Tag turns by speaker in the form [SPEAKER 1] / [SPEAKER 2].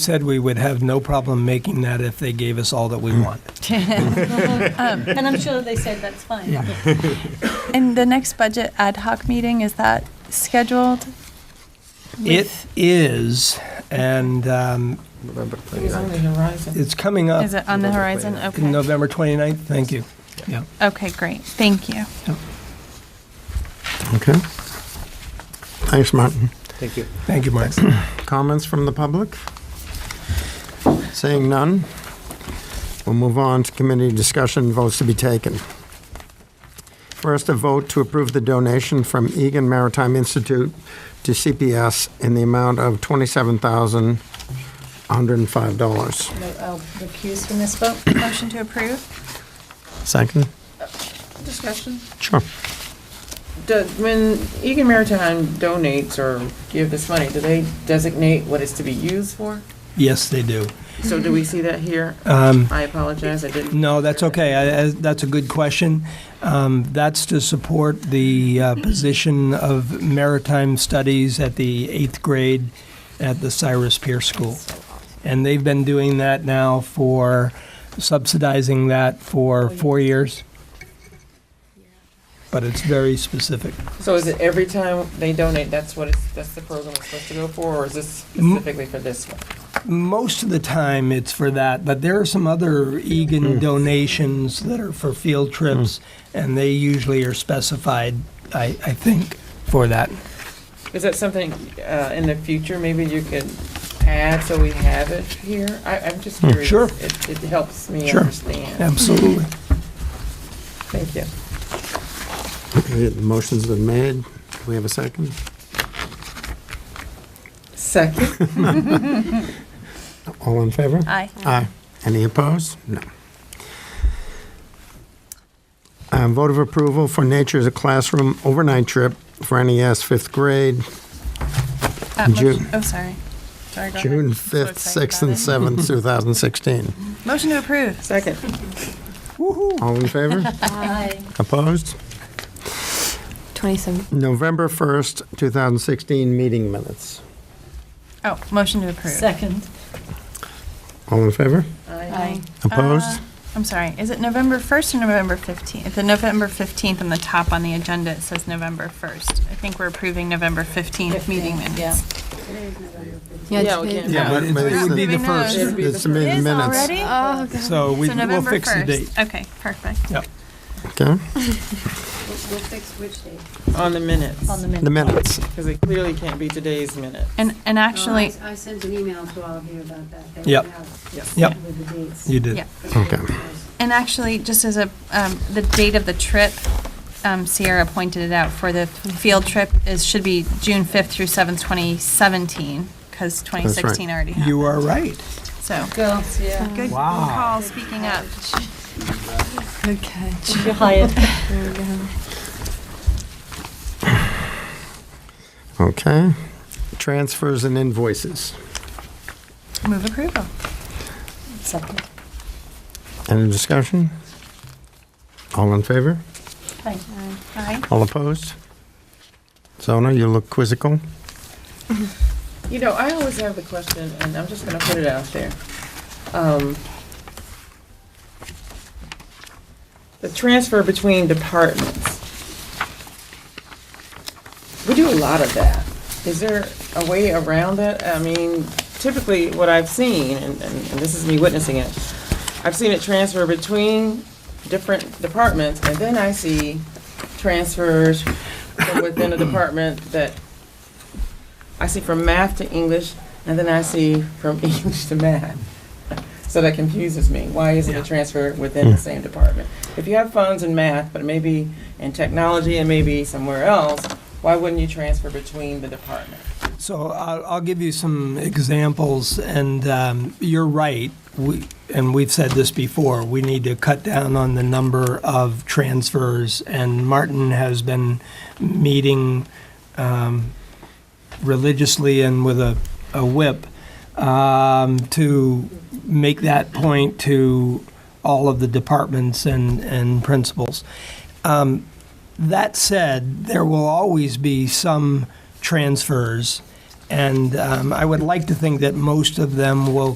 [SPEAKER 1] said we would have no problem making that if they gave us all that we want.
[SPEAKER 2] And I'm sure they said that's fine.
[SPEAKER 3] Um, And the next budget ad hoc meeting, is that scheduled?
[SPEAKER 1] It
[SPEAKER 3] With-
[SPEAKER 1] is, and um,
[SPEAKER 4] November
[SPEAKER 5] It was on
[SPEAKER 4] 29th.
[SPEAKER 5] the horizon.
[SPEAKER 1] it's coming up
[SPEAKER 3] Is it on the
[SPEAKER 4] Uh, November
[SPEAKER 3] horizon?
[SPEAKER 1] in
[SPEAKER 3] Okay.
[SPEAKER 1] November 29th. Thank you. Yeah.
[SPEAKER 3] Okay, great. Thank you.
[SPEAKER 4] Okay. Thanks, Martin.
[SPEAKER 6] Thank you.
[SPEAKER 1] Thank you, Mark.
[SPEAKER 4] Comments from the public? Seeing none, we'll move on to committee discussion votes to be taken. First, a vote to approve the donation from Egan Maritime Institute to CPS in the amount of $27,105.
[SPEAKER 2] No, I'll recuse from this vote.
[SPEAKER 3] Motion to approve?
[SPEAKER 4] Second?
[SPEAKER 5] Discussion?
[SPEAKER 4] Sure.
[SPEAKER 5] Do- When Egan Maritime donates or give this money, do they designate what it's to be used for?
[SPEAKER 1] Yes, they do.
[SPEAKER 5] So do we see that here?
[SPEAKER 1] Um,
[SPEAKER 5] I apologize, I didn't.
[SPEAKER 1] No, that's okay. I- I- That's a good question. Um, That's to support the uh, position of maritime studies at the eighth grade at the Cyrus Pierce School. And they've been doing that now for, subsidizing that for four years. But it's very specific.
[SPEAKER 5] So is it every time they donate, that's what it's, that's the program it's supposed to go for, or is this specifically for this one?
[SPEAKER 1] Most of the time, it's for that, but there are some other Egan donations that are for field trips, and they usually are specified, I, I think, for that.
[SPEAKER 5] Is that something uh, in the future, maybe you could add so we have it here? I, I'm just curious.
[SPEAKER 1] Mm, Sure.
[SPEAKER 5] It, it helps me
[SPEAKER 1] Sure.
[SPEAKER 5] understand.
[SPEAKER 1] Absolutely.
[SPEAKER 5] Thank you.
[SPEAKER 4] Okay, The motion's been made. Do we have a second?
[SPEAKER 5] Second,
[SPEAKER 4] All in favor?
[SPEAKER 3] Aye.
[SPEAKER 4] Aye. Any opposed? No. Uh, Vote of approval for Nature's a Classroom overnight trip for NES fifth grade,
[SPEAKER 3] Uh, motion-
[SPEAKER 4] June.
[SPEAKER 3] Oh, sorry. Sorry, go ahead.
[SPEAKER 4] June
[SPEAKER 3] I'm so
[SPEAKER 4] 5th,
[SPEAKER 3] excited
[SPEAKER 4] 6th,
[SPEAKER 3] about
[SPEAKER 4] and
[SPEAKER 3] it.
[SPEAKER 4] 7th, 2016.
[SPEAKER 3] Motion to approve.
[SPEAKER 5] second.
[SPEAKER 4] All in favor?
[SPEAKER 2] Aye.
[SPEAKER 4] Opposed?
[SPEAKER 7] 27.
[SPEAKER 4] November 1st, 2016, meeting minutes.
[SPEAKER 3] Oh, motion to approve.
[SPEAKER 2] Second.
[SPEAKER 4] All in favor?
[SPEAKER 2] Aye.
[SPEAKER 4] Opposed?
[SPEAKER 3] I'm sorry. Is it November 1st or November 15th? The November 15th on the top on the agenda, it says November 1st. I think we're approving November 15th meeting
[SPEAKER 2] Fifteen,
[SPEAKER 3] minutes.
[SPEAKER 5] Yeah, we
[SPEAKER 7] today.
[SPEAKER 5] can-
[SPEAKER 4] Yeah, but-
[SPEAKER 1] It
[SPEAKER 4] but it's
[SPEAKER 1] would be the
[SPEAKER 3] Maybe
[SPEAKER 4] the-
[SPEAKER 3] not.
[SPEAKER 1] first.
[SPEAKER 5] It'd be the
[SPEAKER 4] It's the
[SPEAKER 3] It
[SPEAKER 4] min-
[SPEAKER 3] is
[SPEAKER 4] minutes.
[SPEAKER 2] Uh,
[SPEAKER 3] already?
[SPEAKER 7] Oh, God.
[SPEAKER 1] So we
[SPEAKER 3] So
[SPEAKER 1] we'll
[SPEAKER 3] November
[SPEAKER 1] fix the
[SPEAKER 3] 1st.
[SPEAKER 1] date.
[SPEAKER 3] Okay, perfect.
[SPEAKER 1] Yep.
[SPEAKER 4] Okay,
[SPEAKER 5] On the minutes,
[SPEAKER 2] On the minute.
[SPEAKER 4] the minutes.
[SPEAKER 5] because it clearly can't be today's minute.
[SPEAKER 3] And, and actually,
[SPEAKER 8] Oh, I sent an email to all of you about that. They
[SPEAKER 1] Yep.
[SPEAKER 8] went out
[SPEAKER 5] Yes.
[SPEAKER 1] Yep,
[SPEAKER 8] With the dates.
[SPEAKER 1] you did.
[SPEAKER 3] yeah.
[SPEAKER 4] Okay.
[SPEAKER 3] And actually, just as a, um, the date of the trip, um, Sierra pointed it out, for the field trip is, should be June 5th through 7th, 2017, because 2016 already happened.
[SPEAKER 1] You are right.
[SPEAKER 3] So,
[SPEAKER 2] Girls, yeah.
[SPEAKER 3] good call, speaking up.
[SPEAKER 7] Good catch.
[SPEAKER 2] You're hired.
[SPEAKER 7] There we go.
[SPEAKER 4] Okay. Transfers and invoices.
[SPEAKER 3] Move approval.
[SPEAKER 2] Second.
[SPEAKER 4] Any discussion? All in favor?
[SPEAKER 2] Aye.
[SPEAKER 3] Aye.
[SPEAKER 4] All opposed? Zona, you look quizzical.
[SPEAKER 5] You know, I always have the question, and I'm just gonna put it out there. Um, The transfer between departments. We do a lot of that. Is there a way around that? I mean, typically, what I've seen, and, and and this is me witnessing it, I've seen it transfer between different departments, and then I see transfers from within a department that I see from math to English, and then I see from English to math. So that confuses me. Why isn't
[SPEAKER 1] Yeah.
[SPEAKER 5] it transfer within the same department? If you have funds in math, but maybe in technology and maybe somewhere else, why wouldn't you transfer between the departments?
[SPEAKER 1] So I'll, I'll give you some examples, and um, you're right. We, and we've said this before, we need to cut down on the number of transfers, and Martin has been meeting um, religiously and with a, a whip um, to make that point to all of the departments and, and principals. Um, that said, there will always be some transfers, And um, I would like to think that most of them will